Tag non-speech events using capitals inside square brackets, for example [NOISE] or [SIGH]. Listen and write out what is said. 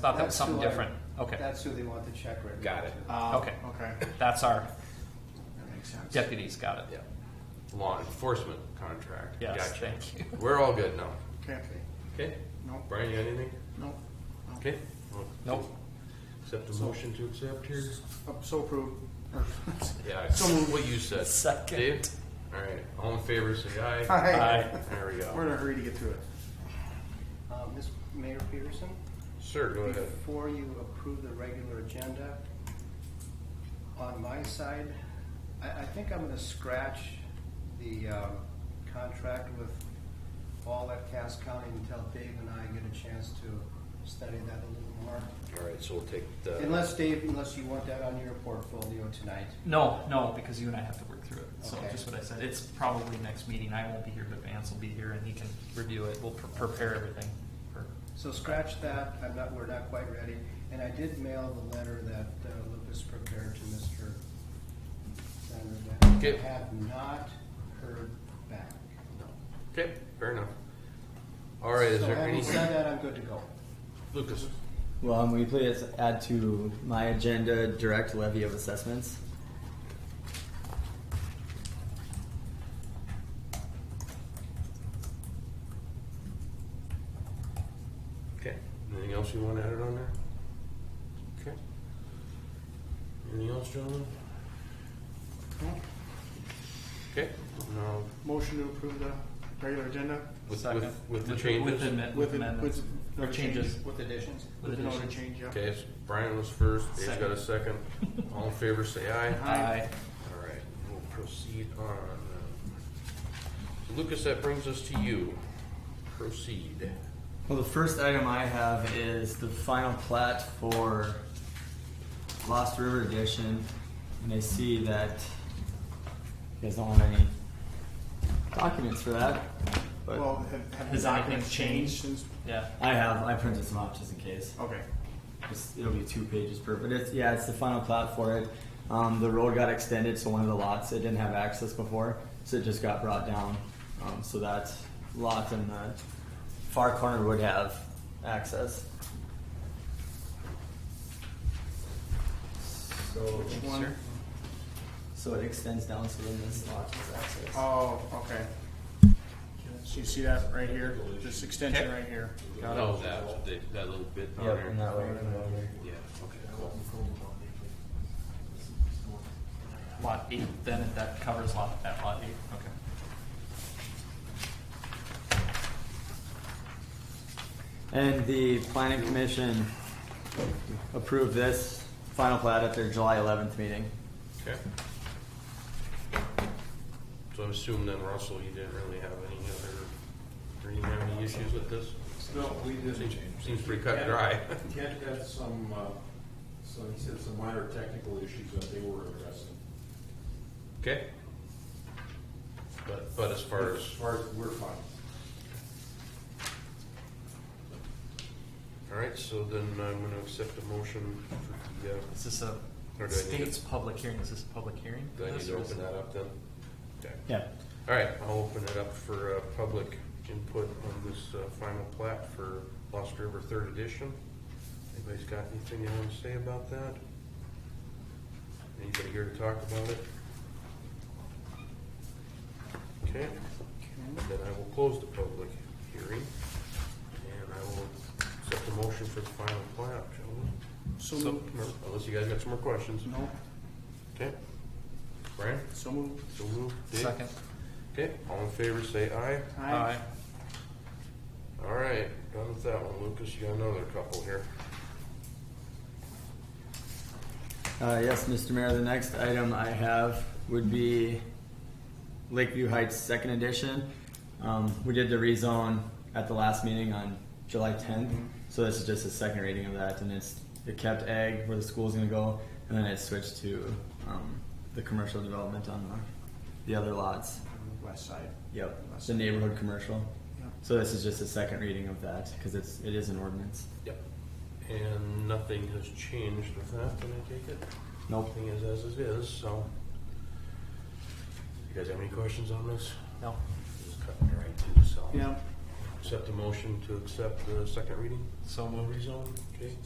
Thought that was That's something who I- different. Okay, That's who they want the check written. Got it. to. Ah, Okay. Okay, that's our That makes sense. deputies got it. Yeah. Law enforcement contract. Yes, Gotcha. thank you. We're all good now. okay, Okay. Nope. Brian, you got anything? no, Okay. Well, Nope. Accept a motion to accept here. Oh, so approved. [LAUGHS] Or- Yeah. So moved. What you said. Second. Dave? All right. All in favor, say aye. Hi. Aye. There we We're in go. a hurry to get through it. Uh, Ms. Mayor Peterson, Sir, go ahead. before you approve the regular agenda, on my side, I, I think I'm gonna scratch the, um, contract with all at Cass County until Dave and I get a chance to study that a little more. All right, so we'll take the. Unless, Dave, unless you want that on your portfolio tonight. No, no, because you and I have to work through it. So Okay. just what I said, it's probably next meeting. I won't be here, but Vance will be here and he can review it. We'll pre- prepare everything. for- So scratch that, I'm not, we're not quite ready. And I did mail the letter that uh, Lucas prepared to Mr. Sandberg. Okay. I have not heard back. Okay, fair enough. All right, is So there having said anything? that, I'm good to go. Lucas, Well, um, will you please add to my agenda direct levy of assessments? okay. Anything else you want added on there? Okay. Anything else, gentlemen? No? Okay, now, Motion to approve the regular agenda with, Second. with, with the With changes? amendments. with, With it- amendments. with Or the changes. change- With additions? With With the note addition. change, yeah. Okay, so Brian was first, Dave's got a second. All in favor, say aye. Aye. All right, we'll proceed on. So Lucas, that brings us to you. Proceed. Well, the first item I have is the final plat for Lost River Edition, and I see that you guys don't have any documents for that. But Well, have, have the Has documents anything changed? changed since? Yeah. I have, I printed some out just in case. Okay, It's, it'll be two pages per, but it's, yeah, it's the final plat for it. Um, the road got extended, so one of the lots, it didn't have access before, so it just got brought down. Um, so that lot in the far corner would have access. So, which one? so it extends down, so then this lot has access. Oh, okay. So you see that right here, this extension right here? Oh, that, that- that little bit down Yep, there. and that way. and that way. Yeah, okay, cool. Lot eight, then if that covers lot, that lot eight, okay. And the planning commission approved this final plat at their July eleventh meeting. Okay. So I'm assuming then, Russell, you didn't really have any other, or you didn't have any issues with this? No, we didn't. Seems- Seems pretty cut and dry. [LAUGHS] Ken had some, uh, some, he said some minor technical issues that they were addressing. Okay? But, but as far As as, far as, we're fine. all right, so then I'm gonna accept a motion for the, uh, Is this a Or do I need state's public hearing? Is this a public hearing? do I need to open that up then? Okay. Yeah. All right, I'll open it up for, uh, public input on this, uh, final plat for Lost River Third Edition. Anybody's got anything they wanna say about that? Anybody here to talk about it? Okay, then I will close the public hearing, and I will accept the motion for the final plat, shall we? So So, moved. Unless you guys got some more questions, No, okay? Brian, so moved. so moved, Dave? Second. Okay, all in favor, say aye. Aye. All right, done with that one, Lucas, you got another couple here. Uh, yes, Mr. Mayor, the next item I have would be Lakeview Heights Second Edition. Um, we did the rezone at the last meeting on July tenth, so this is just a second reading of that, and it's, it kept ag where the school's gonna go, and then it switched to, um, the commercial development on the, the other lots. West side. Yep, the neighborhood commercial. Yeah. So this is just a second reading of that, cause it's, it is an ordinance. Yep. And nothing has changed with that, can I take it? Nope. Nothing is as it is, so. You guys have any questions on this? No. Just cutting it right to the cell. Yeah. Accept the motion to accept the second reading? So No moved. rezone, okay?